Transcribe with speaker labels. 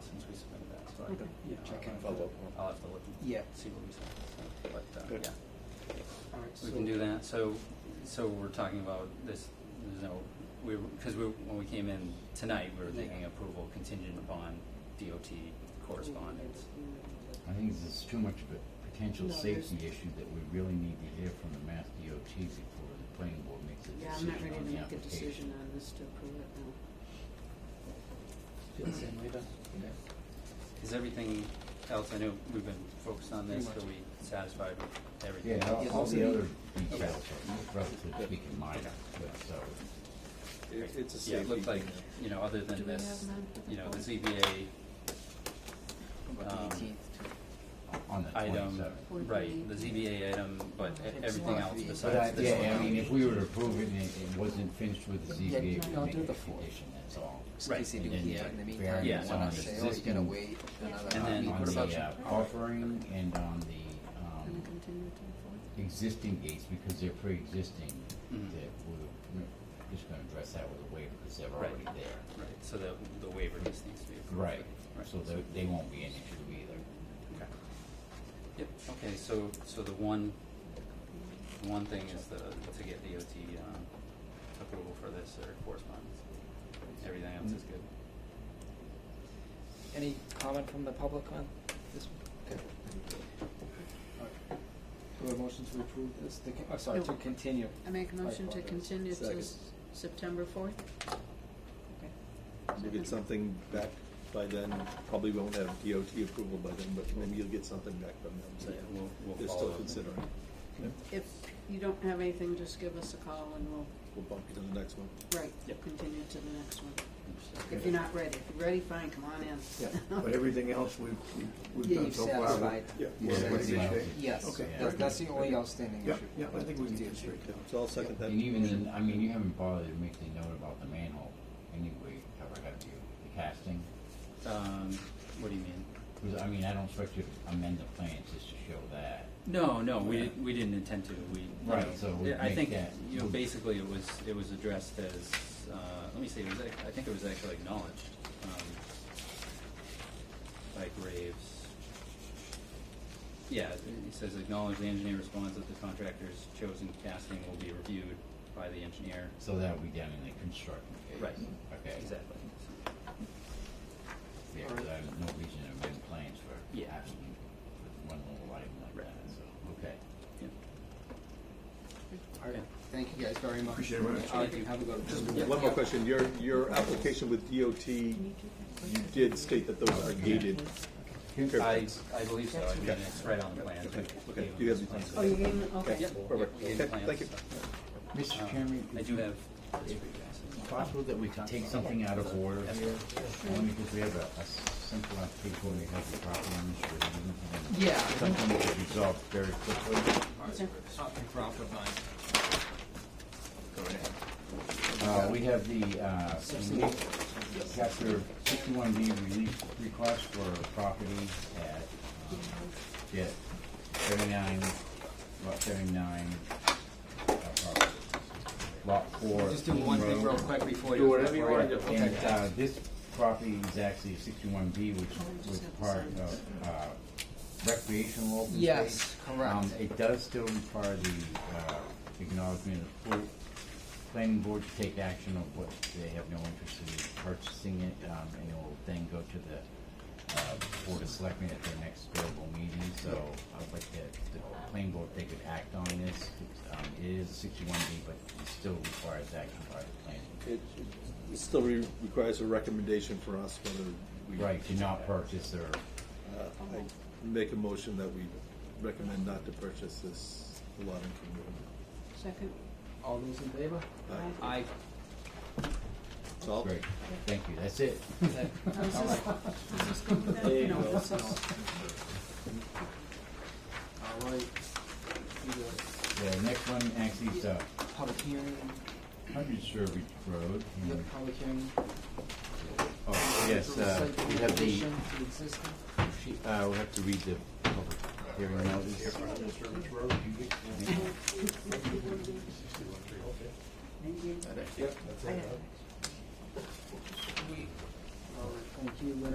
Speaker 1: since we submitted that, so I could, you know. I'll
Speaker 2: Check and
Speaker 1: have to-
Speaker 2: follow up.
Speaker 1: I'll have to look, yeah, see what we said, so, but, uh,
Speaker 2: Good.
Speaker 1: yeah.
Speaker 2: All right,
Speaker 1: We
Speaker 2: so-
Speaker 1: can do that, so, so we're talking about this, there's no, we, because we, when we came in tonight, we were thinking
Speaker 2: Yeah.
Speaker 1: approval contingent upon DOT correspondence.
Speaker 3: I think there's too much of a potential
Speaker 4: No, there's-
Speaker 3: safety issue that we really need to hear from the Mass DOT before the planning board makes a
Speaker 4: Yeah, I'm not
Speaker 3: decision
Speaker 4: ready to
Speaker 3: on the
Speaker 4: make
Speaker 3: application.
Speaker 4: a decision on this to approve it now.
Speaker 2: Feel the same way, Doug?
Speaker 1: Is everything else, I know we've been focused on this,
Speaker 2: Pretty
Speaker 1: are we satisfied with everything?
Speaker 3: Yeah, all, all
Speaker 2: Yes.
Speaker 3: the other
Speaker 1: Okay.
Speaker 3: details are relatively speaking minor,
Speaker 1: Okay.
Speaker 3: but so,
Speaker 2: It, it's a
Speaker 1: Yeah, it
Speaker 2: safety
Speaker 1: looked like,
Speaker 2: thing.
Speaker 1: you know, other
Speaker 4: Do
Speaker 1: than
Speaker 4: we
Speaker 1: this,
Speaker 4: have none for the
Speaker 1: you know, the
Speaker 4: board?
Speaker 1: ZBA, um,
Speaker 2: About the 18th.
Speaker 3: on the
Speaker 1: item,
Speaker 3: twenty-seventh.
Speaker 4: Board
Speaker 1: right,
Speaker 4: meeting.
Speaker 1: the ZBA item, but e-
Speaker 2: It's
Speaker 1: everything
Speaker 2: not
Speaker 1: else
Speaker 2: the-
Speaker 3: But I,
Speaker 1: besides this one.
Speaker 3: yeah, I mean, if we were to approve it and it it wasn't finished with the
Speaker 2: Yeah,
Speaker 3: ZBA, we
Speaker 2: no,
Speaker 3: make
Speaker 2: do
Speaker 3: it a
Speaker 2: the fourth.
Speaker 3: condition, that's all.
Speaker 2: Just in case they
Speaker 3: And
Speaker 2: do
Speaker 3: then
Speaker 2: heat
Speaker 3: the
Speaker 2: in the meantime,
Speaker 3: variance
Speaker 2: you don't wanna
Speaker 3: on
Speaker 2: say, oh, you gotta
Speaker 3: existing-
Speaker 2: wait another
Speaker 1: And then
Speaker 2: week.
Speaker 1: on
Speaker 2: What
Speaker 3: On
Speaker 2: about
Speaker 1: the,
Speaker 2: you?
Speaker 3: the uh, buffering and on the,
Speaker 4: Can
Speaker 3: um,
Speaker 4: I continue to the fourth?
Speaker 3: existing gates, because they're pre-existing,
Speaker 1: Mhm.
Speaker 3: that we're we're just gonna address that with a waiver, because they're
Speaker 1: Right.
Speaker 3: already there.
Speaker 1: Right, so the, the waiver just needs to be approved.
Speaker 3: Right,
Speaker 1: Right.
Speaker 3: so they, they won't be an issue either.
Speaker 1: Okay. Yep, okay, so, so the one, one thing is the, to get DOT, um, approval for this or correspondence. Everything else is good.
Speaker 3: Mm-hmm.
Speaker 2: Any comment from the public on this? Okay. Alright. Do we have a motion to approve this? The, con- oh, sorry, to
Speaker 4: No.
Speaker 2: continue.
Speaker 4: I make a
Speaker 2: I
Speaker 4: motion to
Speaker 2: apologize.
Speaker 4: continue to
Speaker 5: Second.
Speaker 4: s- September fourth? Okay.
Speaker 5: We'll get something back by then, probably won't have DOT approval by then, but maybe you'll get something back from them,
Speaker 1: So, yeah,
Speaker 5: saying,
Speaker 1: we'll, we'll
Speaker 5: they're
Speaker 1: follow
Speaker 5: still
Speaker 1: up.
Speaker 5: considering. Yeah,
Speaker 4: If you don't have anything, just give us a call and we'll,
Speaker 5: We'll bump you to the next one.
Speaker 4: right,
Speaker 1: Yep.
Speaker 4: continue to the next one.
Speaker 1: Understood.
Speaker 4: If you're not ready, if you're ready, fine, come on in.
Speaker 5: Yeah,
Speaker 6: But everything else we've, we've
Speaker 2: Yeah,
Speaker 6: we've done
Speaker 2: you've
Speaker 6: so far. we're-
Speaker 2: satisfied.
Speaker 5: Yeah.
Speaker 6: We're in pretty good shape.
Speaker 2: Yes,
Speaker 6: Okay,
Speaker 2: that's,
Speaker 6: very
Speaker 2: that's
Speaker 6: good.
Speaker 2: the only outstanding
Speaker 6: Yeah,
Speaker 2: issue.
Speaker 6: yeah, I think we can get it straight down.
Speaker 5: So I'll second that.
Speaker 3: And even then, I mean, you haven't bothered to make the note about the manhole anyway, ever have you, the casting?
Speaker 1: Um, what do you mean?
Speaker 3: Because, I mean, I don't expect you to amend the plans just to show that.
Speaker 1: No, no, we,
Speaker 3: Yeah.
Speaker 1: we didn't intend to, we.
Speaker 3: Right,
Speaker 1: you know,
Speaker 3: so we
Speaker 1: yeah, I
Speaker 3: make
Speaker 1: think,
Speaker 3: that-
Speaker 1: you know, basically it was, it was addressed as, uh, let me see, it was, ac- I think it was actually acknowledged, um, by Graves. Yeah, he says acknowledge the engineer responds that the contractor's chosen casting will be reviewed by the engineer.
Speaker 3: So that'll be done in the construction phase.
Speaker 1: Right.
Speaker 3: Okay.
Speaker 1: Exactly.
Speaker 3: Yeah, 'cause I have no reason to amend plans for
Speaker 1: Yeah.
Speaker 3: absolutely one little item like
Speaker 1: Right.
Speaker 3: that, so, okay.
Speaker 1: Yeah.
Speaker 2: Alright, thank you guys very much.
Speaker 6: Appreciate it very much.
Speaker 2: Alright, have a good
Speaker 5: Just
Speaker 2: one.
Speaker 5: one more question, your, your application with DOT, you did state that those are gated.
Speaker 1: I,
Speaker 5: Fairfields.
Speaker 1: I believe so, I mean,
Speaker 5: Okay.
Speaker 1: it's right on the plan.
Speaker 5: Okay, okay, you have the plans.
Speaker 4: Oh, you gave me,
Speaker 5: Okay,
Speaker 4: okay.
Speaker 5: perfect.
Speaker 1: We gave the
Speaker 5: Okay,
Speaker 1: plans,
Speaker 5: thank you.
Speaker 1: so.
Speaker 3: Mr. Chairman,
Speaker 1: Uh, I do have.
Speaker 3: It's possible that we could take something out of order here, only because we have a, a simple application, we have the problems, we have
Speaker 2: Yeah.
Speaker 3: something that could resolve very quickly.
Speaker 4: Is there-
Speaker 2: Something Crawford on.
Speaker 3: Uh, we have the, uh, relief- chapter sixty-one B relief request for property at, um, yeah, thirty-nine, lot thirty-nine. uh, property, Lot four.
Speaker 2: Just do one
Speaker 3: Eaton
Speaker 2: thing real
Speaker 3: Road.
Speaker 2: quick before you.
Speaker 6: Do whatever you want to do.
Speaker 2: Okay.
Speaker 3: And, uh, this property is actually sixty-one B, which
Speaker 4: Oh, we just
Speaker 3: was
Speaker 4: have to
Speaker 3: part
Speaker 4: sign
Speaker 3: of, uh, recreational open space.
Speaker 2: Yes, correct.
Speaker 3: Um, it does still require the, uh, acknowledgement of full planning board to take action of what, they have no interest in purchasing it, um, and it will then go to the, uh, board of selectmen at their next available meeting, so I'd like to, the planning board, if they could act on this, um, it is sixty-one B, but it still requires action by the planning. board.
Speaker 5: It it still re- requires a recommendation for us whether we.
Speaker 3: Right, to not purchase or,
Speaker 5: Uh, I Make a motion that we recommend not to purchase this lot in King
Speaker 4: Second,
Speaker 2: All those in favor?
Speaker 5: River.
Speaker 4: aye.
Speaker 2: Aye.
Speaker 5: Aye. Salt?
Speaker 3: great, thank you, that's it.
Speaker 4: Does Oh, this- does this go with that?
Speaker 2: There you
Speaker 4: No,
Speaker 2: go.
Speaker 4: this is-
Speaker 2: Alright. Do the
Speaker 3: The next one actually is uh,
Speaker 2: Public hearing,
Speaker 3: Hundred Service Road.
Speaker 2: the
Speaker 3: and-
Speaker 2: public hearing.
Speaker 3: Oh, yes, uh, we have the,
Speaker 2: Addition to existing.
Speaker 3: uh, we have to read the public hearing notice.
Speaker 4: I have-
Speaker 2: Alright, thank you, Lynn.